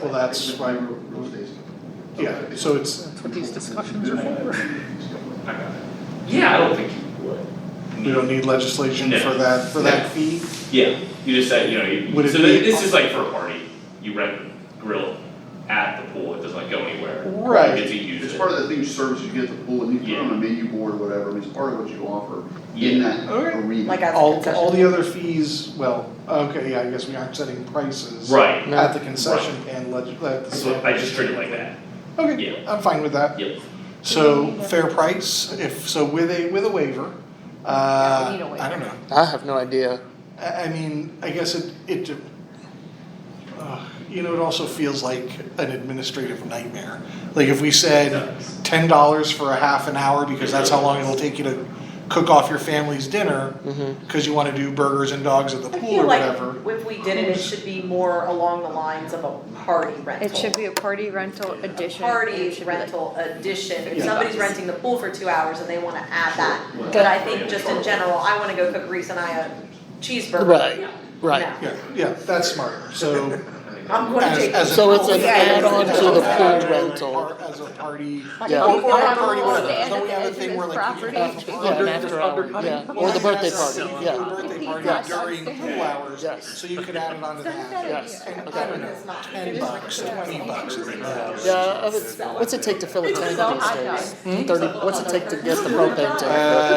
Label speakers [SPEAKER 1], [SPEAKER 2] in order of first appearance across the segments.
[SPEAKER 1] Well, that's why we're, yeah, so it's,
[SPEAKER 2] That's what these discussions are for.
[SPEAKER 3] I got it. Yeah, I don't think you would.
[SPEAKER 1] we don't need legislation for that, for that fee.
[SPEAKER 3] Yeah, you just said, you know, you,
[SPEAKER 1] Would it
[SPEAKER 3] so
[SPEAKER 1] be-
[SPEAKER 3] thi- this is like for a party, you rent the grill at the pool, it doesn't like go anywhere. You
[SPEAKER 1] Right,
[SPEAKER 3] get to use
[SPEAKER 4] It's
[SPEAKER 3] it.
[SPEAKER 4] part of the thing, service you get at the pool, and you put
[SPEAKER 3] Yeah.
[SPEAKER 4] on a menu board or whatever, I mean, it's part of what you offer in
[SPEAKER 3] Yeah.
[SPEAKER 4] that
[SPEAKER 1] Okay.
[SPEAKER 4] arena.
[SPEAKER 5] Like as a
[SPEAKER 1] all, all
[SPEAKER 5] concession.
[SPEAKER 1] the other fees, well, okay, yeah, I guess we aren't setting prices.
[SPEAKER 3] Right,
[SPEAKER 1] At the concession and leg, at the.
[SPEAKER 3] so I just treat it like that,
[SPEAKER 1] Okay, I'm fine with that.
[SPEAKER 3] yep,
[SPEAKER 1] So fair price, if, so with a, with a waiver,
[SPEAKER 5] Yeah, we
[SPEAKER 1] uh,
[SPEAKER 5] need a
[SPEAKER 1] I don't know.
[SPEAKER 2] I have no idea.
[SPEAKER 1] I, I mean, I guess it, it, de- uh, you know, it also feels like an administrative nightmare. Like if we said ten dollars for a half an hour because that's how long it'll take you to cook off your family's dinner
[SPEAKER 2] Mm-hmm.
[SPEAKER 1] because you want to do burgers and dogs at the
[SPEAKER 5] I
[SPEAKER 1] pool
[SPEAKER 5] feel
[SPEAKER 1] or
[SPEAKER 5] like
[SPEAKER 1] whatever.
[SPEAKER 5] if we did it, it should be more along the lines of a party rental.
[SPEAKER 6] It should be a party rental addition. It
[SPEAKER 5] Party
[SPEAKER 6] should be like-
[SPEAKER 5] rental addition, if
[SPEAKER 1] Yeah.
[SPEAKER 5] somebody's renting the pool for two hours and they wanna add that,
[SPEAKER 4] Sure.
[SPEAKER 5] but I think just in general, I wanna go cook Reese and I a cheeseburger.
[SPEAKER 2] Right, right.
[SPEAKER 5] No.
[SPEAKER 1] Yeah, yeah, that's smart. So
[SPEAKER 5] I'm gonna
[SPEAKER 1] as,
[SPEAKER 5] take.
[SPEAKER 1] as a
[SPEAKER 2] So it's an
[SPEAKER 1] pool-
[SPEAKER 5] add-on to
[SPEAKER 2] the pool
[SPEAKER 1] As a
[SPEAKER 2] rental.
[SPEAKER 1] par- As a party.
[SPEAKER 2] Yeah.
[SPEAKER 1] Or- or a
[SPEAKER 6] Yeah.
[SPEAKER 1] party rental.
[SPEAKER 6] Stand
[SPEAKER 1] Don't we have
[SPEAKER 6] at the
[SPEAKER 1] a
[SPEAKER 6] edge of
[SPEAKER 1] thing
[SPEAKER 6] his
[SPEAKER 1] where like you can
[SPEAKER 6] property.
[SPEAKER 1] have a
[SPEAKER 2] Yeah, an after hour, yeah, or the birthday party,
[SPEAKER 1] Well,
[SPEAKER 2] yeah.
[SPEAKER 1] I think that's- you can do a
[SPEAKER 6] Yes.
[SPEAKER 1] birthday party during pool hours,
[SPEAKER 2] Yes.
[SPEAKER 1] so you could add it onto
[SPEAKER 6] Sounds
[SPEAKER 1] that.
[SPEAKER 6] good.
[SPEAKER 2] Yes.
[SPEAKER 1] And I
[SPEAKER 2] Okay.
[SPEAKER 1] don't know,
[SPEAKER 5] It's not-
[SPEAKER 1] ten bucks, twenty bucks.
[SPEAKER 2] Yeah, uh, it's- what's it take to fill a tank
[SPEAKER 6] Sell
[SPEAKER 2] these
[SPEAKER 6] Oh, hot
[SPEAKER 2] days?
[SPEAKER 6] dogs.
[SPEAKER 2] Thirty, what's it take to get the
[SPEAKER 1] Uh,
[SPEAKER 2] propane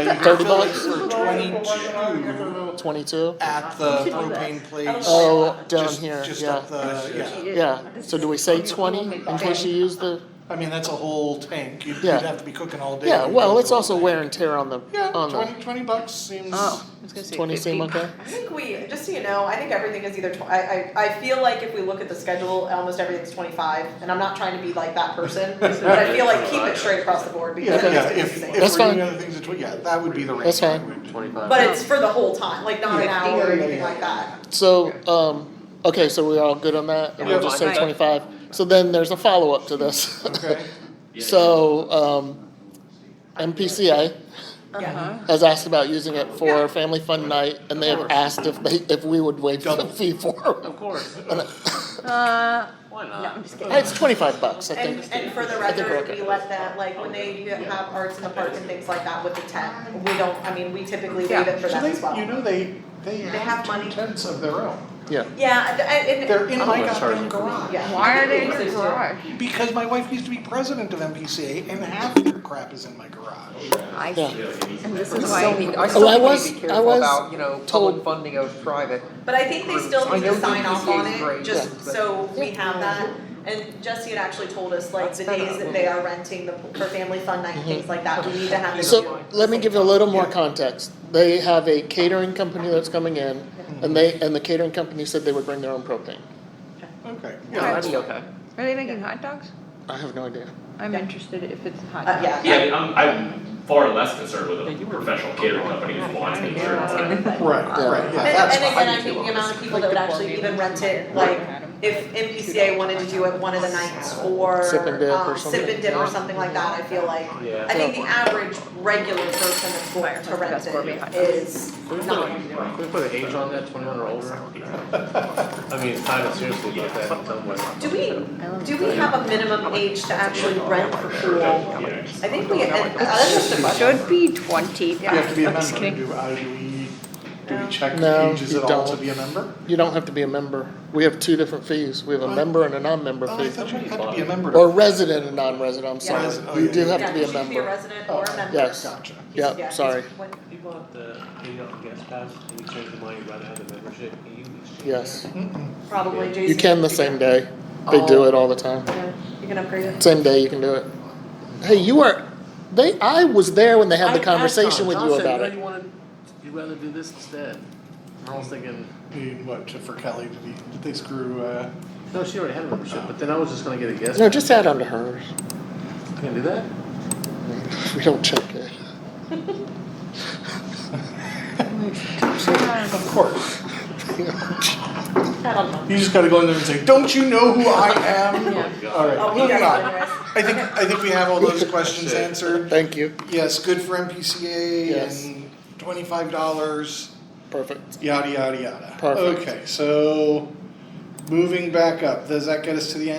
[SPEAKER 1] you
[SPEAKER 2] tank?
[SPEAKER 1] can
[SPEAKER 2] Thirty
[SPEAKER 1] fill it
[SPEAKER 2] bucks,
[SPEAKER 1] for twenty-two
[SPEAKER 2] twenty-two?
[SPEAKER 1] at the propane place.
[SPEAKER 2] Oh, down
[SPEAKER 1] just-
[SPEAKER 2] here,
[SPEAKER 1] Just
[SPEAKER 2] yeah,
[SPEAKER 1] up the, yeah,
[SPEAKER 2] yeah. So do we say twenty in case you use the,
[SPEAKER 1] I mean, that's a whole tank, you'd, you'd
[SPEAKER 2] Yeah.
[SPEAKER 1] have to be cooking all day.
[SPEAKER 2] yeah, well, it's also wear and tear on the,
[SPEAKER 1] Yeah,
[SPEAKER 2] on
[SPEAKER 1] twenty,
[SPEAKER 2] the,
[SPEAKER 1] twenty bucks seems.
[SPEAKER 6] Oh, I was gonna say
[SPEAKER 2] twenty seem
[SPEAKER 6] 50.
[SPEAKER 2] okay?
[SPEAKER 5] I think we, just so you know, I think everything is either, tw- I, I, I feel like if we look at the schedule, almost everything's twenty-five, and I'm not trying to be like that person, but I feel like keep it straight across the board because
[SPEAKER 1] Yeah,
[SPEAKER 5] it
[SPEAKER 1] yeah,
[SPEAKER 5] is
[SPEAKER 1] if,
[SPEAKER 5] confusing.
[SPEAKER 1] if
[SPEAKER 2] That's
[SPEAKER 1] we're doing
[SPEAKER 2] fine.
[SPEAKER 1] other things, it's- yeah, that would be the range.
[SPEAKER 2] That's
[SPEAKER 1] I
[SPEAKER 2] fine.
[SPEAKER 1] would-
[SPEAKER 5] But it's for the whole time, like not an
[SPEAKER 1] Yeah.
[SPEAKER 5] hour or
[SPEAKER 1] Yeah, yeah,
[SPEAKER 5] anything
[SPEAKER 1] yeah.
[SPEAKER 5] like that.
[SPEAKER 2] So, um, okay, so we're all good on that, and we'll just say
[SPEAKER 6] Yeah.
[SPEAKER 2] twenty-five. So then there's a follow-up to this.
[SPEAKER 1] Okay,
[SPEAKER 3] yeah.
[SPEAKER 2] So, um, MPCA
[SPEAKER 5] Yeah.
[SPEAKER 6] Uh-huh.
[SPEAKER 2] has asked about using it
[SPEAKER 5] Yeah.
[SPEAKER 2] for family fun night, and they have asked if they, if we would waive the
[SPEAKER 1] Double.
[SPEAKER 2] fee for it.
[SPEAKER 7] Of course,
[SPEAKER 6] Uh,
[SPEAKER 7] why
[SPEAKER 6] no,
[SPEAKER 7] not?
[SPEAKER 6] I'm just kidding.
[SPEAKER 2] It's twenty-five bucks, I
[SPEAKER 5] And,
[SPEAKER 2] think.
[SPEAKER 5] and for the
[SPEAKER 2] I think we're
[SPEAKER 5] record,
[SPEAKER 2] okay.
[SPEAKER 5] we let that, like, when they have arts in the parks and things like that with the tent, we don't, I mean, we typically leave it for
[SPEAKER 1] so
[SPEAKER 5] them as
[SPEAKER 1] they, you
[SPEAKER 5] well.
[SPEAKER 1] know, they, they
[SPEAKER 5] They have
[SPEAKER 1] have
[SPEAKER 5] money.
[SPEAKER 1] two tents of their own.
[SPEAKER 2] Yeah,
[SPEAKER 5] Yeah, I- I- and-
[SPEAKER 1] They're in
[SPEAKER 4] I'm
[SPEAKER 1] my
[SPEAKER 4] gonna charge
[SPEAKER 1] goddamn
[SPEAKER 4] them for
[SPEAKER 1] garage.
[SPEAKER 5] Yeah.
[SPEAKER 6] Why are they in your garage?
[SPEAKER 1] Because my wife used to be president of MPCA and half of their crap is in my garage.
[SPEAKER 6] I
[SPEAKER 2] Yeah.
[SPEAKER 6] see. And this
[SPEAKER 7] We
[SPEAKER 6] is
[SPEAKER 7] still
[SPEAKER 6] why.
[SPEAKER 7] need, I still
[SPEAKER 2] I
[SPEAKER 7] need
[SPEAKER 2] was-
[SPEAKER 7] to
[SPEAKER 2] I
[SPEAKER 7] be careful
[SPEAKER 2] was
[SPEAKER 7] about, you know,
[SPEAKER 2] told-
[SPEAKER 7] public funding of private.
[SPEAKER 5] But I think they still
[SPEAKER 7] I
[SPEAKER 5] need to
[SPEAKER 7] know
[SPEAKER 5] sign off on
[SPEAKER 7] DPCA is
[SPEAKER 5] it,
[SPEAKER 7] great,
[SPEAKER 5] just
[SPEAKER 7] yeah.
[SPEAKER 5] so we have that. And Jesse had actually told us, like, the days that they are renting the, for family fun night and
[SPEAKER 7] Mm-hmm.
[SPEAKER 5] things like that, we need to have it.
[SPEAKER 2] so let me give you a little more context. They have a catering company that's coming in, and they, and the catering company said they would bring their own propane.
[SPEAKER 1] Okay,
[SPEAKER 7] Yeah,
[SPEAKER 1] yeah,
[SPEAKER 7] that'd be okay.
[SPEAKER 6] Are they making hot dogs?
[SPEAKER 2] I have no idea.
[SPEAKER 6] I'm
[SPEAKER 5] Yeah.
[SPEAKER 6] interested if it's hot
[SPEAKER 5] Uh,
[SPEAKER 6] dogs.
[SPEAKER 5] yeah.
[SPEAKER 3] Yeah, I'm, I'm far less concerned with a professional catering company who wants me to serve on it.
[SPEAKER 6] Oh,
[SPEAKER 1] right, right, yeah,
[SPEAKER 5] And,
[SPEAKER 1] that's
[SPEAKER 5] and
[SPEAKER 1] fine.
[SPEAKER 5] again, I think the amount of people that would actually even rent it, like, if MPCA wanted to do it one of the nights or,
[SPEAKER 2] Sip and dip or
[SPEAKER 5] um, sip and dip or something like that, I feel like. I think the average regular person that's going to rent it is not.
[SPEAKER 7] Can we put an age on that, twenty-one or older? I mean, it's time to seriously look at that in some way.
[SPEAKER 5] Do we, do we have a minimum age to actually rent for pool? I
[SPEAKER 3] Yeah.
[SPEAKER 5] think we, and- that's just a
[SPEAKER 6] It
[SPEAKER 5] question.
[SPEAKER 6] should be twenty.
[SPEAKER 1] You have to be a
[SPEAKER 6] I'm just
[SPEAKER 1] member,
[SPEAKER 6] kidding.
[SPEAKER 1] do, uh, do we, do we check
[SPEAKER 2] No,
[SPEAKER 1] ages
[SPEAKER 2] you
[SPEAKER 1] at all to
[SPEAKER 2] don't.
[SPEAKER 1] be a member?
[SPEAKER 2] You don't have to be a member. We have two different fees. We have a
[SPEAKER 1] What?
[SPEAKER 2] member and a non-member
[SPEAKER 1] Oh, I
[SPEAKER 2] fee.
[SPEAKER 1] thought you had to be a member
[SPEAKER 2] Or
[SPEAKER 1] to,
[SPEAKER 2] resident and non-resident, I'm sorry.
[SPEAKER 1] Resident, oh,
[SPEAKER 2] You
[SPEAKER 1] yeah,
[SPEAKER 2] do
[SPEAKER 1] yeah.
[SPEAKER 2] have to be
[SPEAKER 5] Yeah,
[SPEAKER 2] a
[SPEAKER 5] you should be a
[SPEAKER 2] member.
[SPEAKER 5] resident or a member.
[SPEAKER 2] Oh, Yes.
[SPEAKER 1] gotcha.
[SPEAKER 2] Yep,
[SPEAKER 5] Yeah,
[SPEAKER 2] sorry.
[SPEAKER 5] when-
[SPEAKER 8] You want the, you don't guest pass, and you change the money rather than the membership, and you exchange.
[SPEAKER 2] Yes.
[SPEAKER 5] Probably Jason.
[SPEAKER 2] You can the same day. They
[SPEAKER 1] Oh.
[SPEAKER 2] do it all the time.
[SPEAKER 5] Yeah, You can upgrade it.
[SPEAKER 2] Same day you can do it. Hey, you were, they, I was there when they had the conversation with you about
[SPEAKER 7] you
[SPEAKER 2] it.
[SPEAKER 7] wanna, you'd rather do this instead. I was thinking,
[SPEAKER 1] Dude, what, to- for Kelly, did he, did they screw, uh,
[SPEAKER 7] no, she already had a membership, but then I was just gonna get a guest.
[SPEAKER 2] No, just add on to hers.
[SPEAKER 7] I can do that?
[SPEAKER 2] We don't check it.
[SPEAKER 1] of course.
[SPEAKER 5] I don't know.
[SPEAKER 1] You just gotta go in there and say, don't you know who I am?
[SPEAKER 5] Oh,
[SPEAKER 1] Alright,
[SPEAKER 5] we
[SPEAKER 1] moving
[SPEAKER 5] got it
[SPEAKER 1] on.
[SPEAKER 5] anyways.
[SPEAKER 1] I think, I think we have all those questions answered.
[SPEAKER 2] Thank you.
[SPEAKER 1] Yes, good for MPCA
[SPEAKER 2] Yes.
[SPEAKER 1] and twenty-five dollars,
[SPEAKER 2] Perfect.
[SPEAKER 1] yada, yada, yada.
[SPEAKER 2] Perfect.
[SPEAKER 1] Okay, so moving back up, does that get us to the end?